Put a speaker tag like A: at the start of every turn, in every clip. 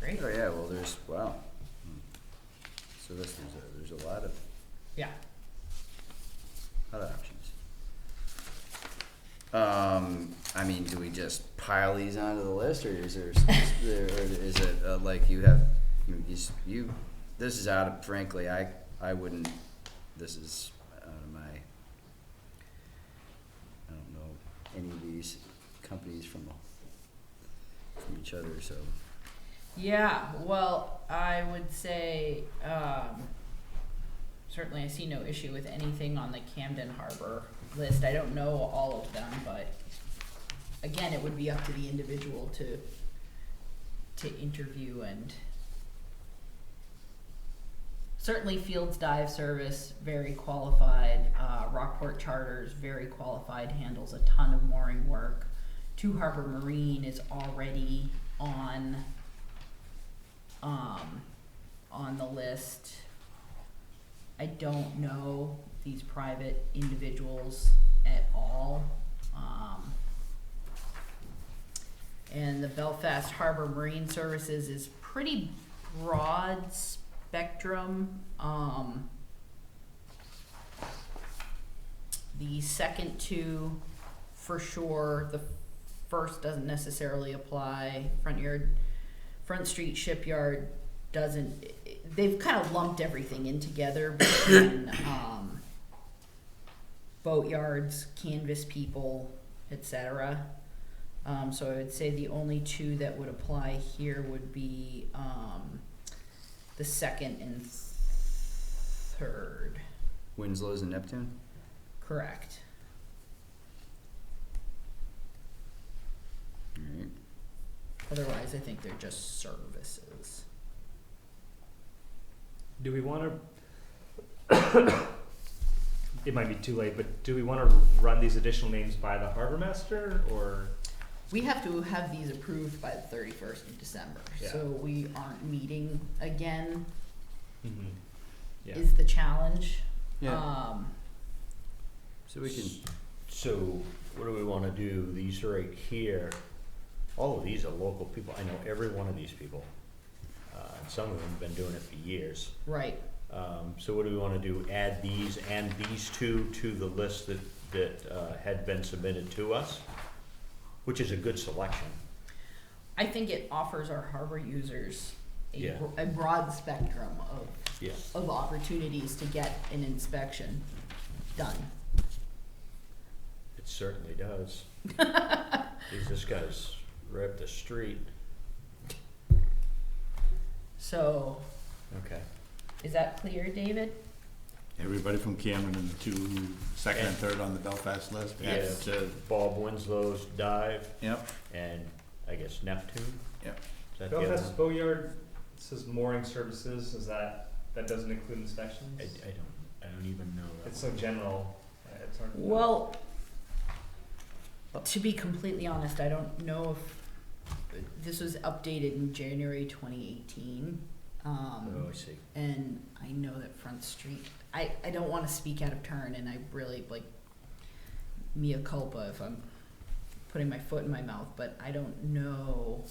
A: Great,
B: Oh, yeah, well, there's, wow. Hmm. So this, there's a, there's a lot of,
A: yeah,
B: lot of options. Um, I mean, do we just pile these onto the list, or is there, s- s- there- or is it, uh, like, you have, you, you s- you, this is out of, frankly, I, I wouldn't, this is out of my, I don't know any of these companies from, from each other, so.
A: yeah, well, I would say, um, certainly I see no issue with anything on the Camden Harbor list, I don't know all of them, but again, it would be up to the individual to, to interview and certainly Fields Dive Service, very qualified, uh, Rockport Charters, very qualified, handles a ton of mooring work. Two Harbor Marine is already on, um, on the list. I don't know these private individuals at all. Um, and the Belfast Harbor Marine Services is pretty broad spectrum. Um, the second two, for sure, the first doesn't necessarily apply. Front yard, Front Street Shipyard doesn't. They've kind of lumped everything in together between um, boatyards, canvas people, etc. Um, so I would say the only two that would apply here would be um, the second and third.
B: Winslow's and Neptune?
A: Correct.
B: Alright.
A: Otherwise, I think they're just services.
C: Do we want to? it might be too late, but do we want to run these additional names by the harbor master or?
A: We have to have these approved by the thirty-first of December, so we aren't meeting again
C: Yeah.
A: is the challenge.
B: Yeah,
A: Um,
B: so we can,
D: So what do we wanna do, these right here, all of these are local people, I know every one of these people. Uh, and some of them have been doing it for years,
A: right,
D: um, so what do we wanna do, add these and these two to the list that, that, uh, had been submitted to us? Which is a good selection,
A: I think it offers our harbor users a,
D: Yeah.
A: bro- a broad spectrum of,
D: yeah,
A: of opportunities to get an inspection done.
D: it certainly does. Geez, This guy's right up the street,
A: So,
D: okay.
A: is that clear, David?
E: Everybody from Cameron and the two, second and third on the Belfast list?
D: Yes.
E: Yeah, it's, uh,
D: Bob Winslow's dive
E: Yep,
D: and I guess Neptune,
E: yep.
D: is that the other one?
C: Belfast Boatyard says mooring services, is that, that doesn't include inspections?
D: I, I don't, I don't even know. that
C: It's so
D: one.
C: general, uh, it's hard to. know.
A: Well, to be completely honest, I don't know if, this was updated in January twenty eighteen.
D: Oh,
A: Um,
D: I see.
A: and I know that Front Street, I, I don't wanna speak out of turn and I really like mea culpa if I'm putting my foot in my mouth, but I don't know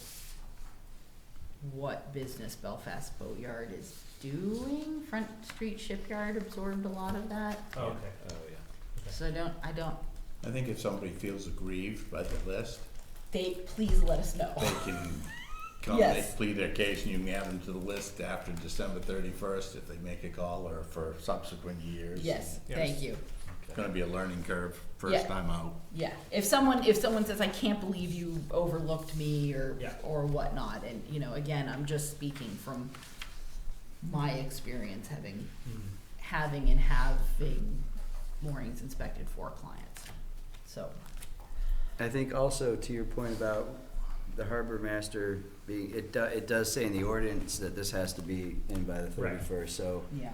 A: what business Belfast Boatyard is doing. Front Street Shipyard absorbed a lot of that,
C: Oh, okay.
D: Oh, yeah.
A: so I don't, I don't
E: I think if somebody feels aggrieved by the list,
A: They please let us know.
E: they can come, they
A: Yes.
E: plead their case, and you can add them to the list after December thirty-first if they make a call or for subsequent years.
A: Yes,
C: Yes.
A: thank you.
E: It's gonna be a learning curve,
A: Yeah.
E: first time out.
A: Yeah, if someone if someone says I can't believe you overlooked me or
C: Yeah.
A: or whatnot, and you know, again, I'm just speaking from my experience having
C: Hmm.
A: having and having moorings inspected for clients. So
B: I think also to your point about the harbor master being, it do, it does say in the ordinance that this has to be in by the
C: Right.
B: thirty-first, so
A: yeah,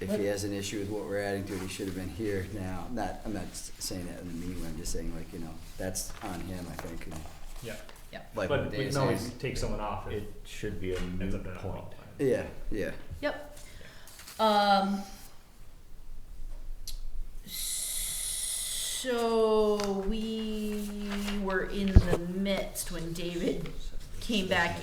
B: if he has an issue with what we're adding to it, he should have been here now. Not, I'm not s- saying that in the meeting, I'm just saying like, you know, that's on him, I think, and
C: Yeah,
B: like
C: but
B: what
C: we
B: Dan's
C: can always
B: saying.
C: take someone off if
D: It should be a
C: it's a
D: moot
C: bit of a
D: point.
C: qualifier.
B: Yeah, yeah,
A: yep. Um. So we were in the midst when David came back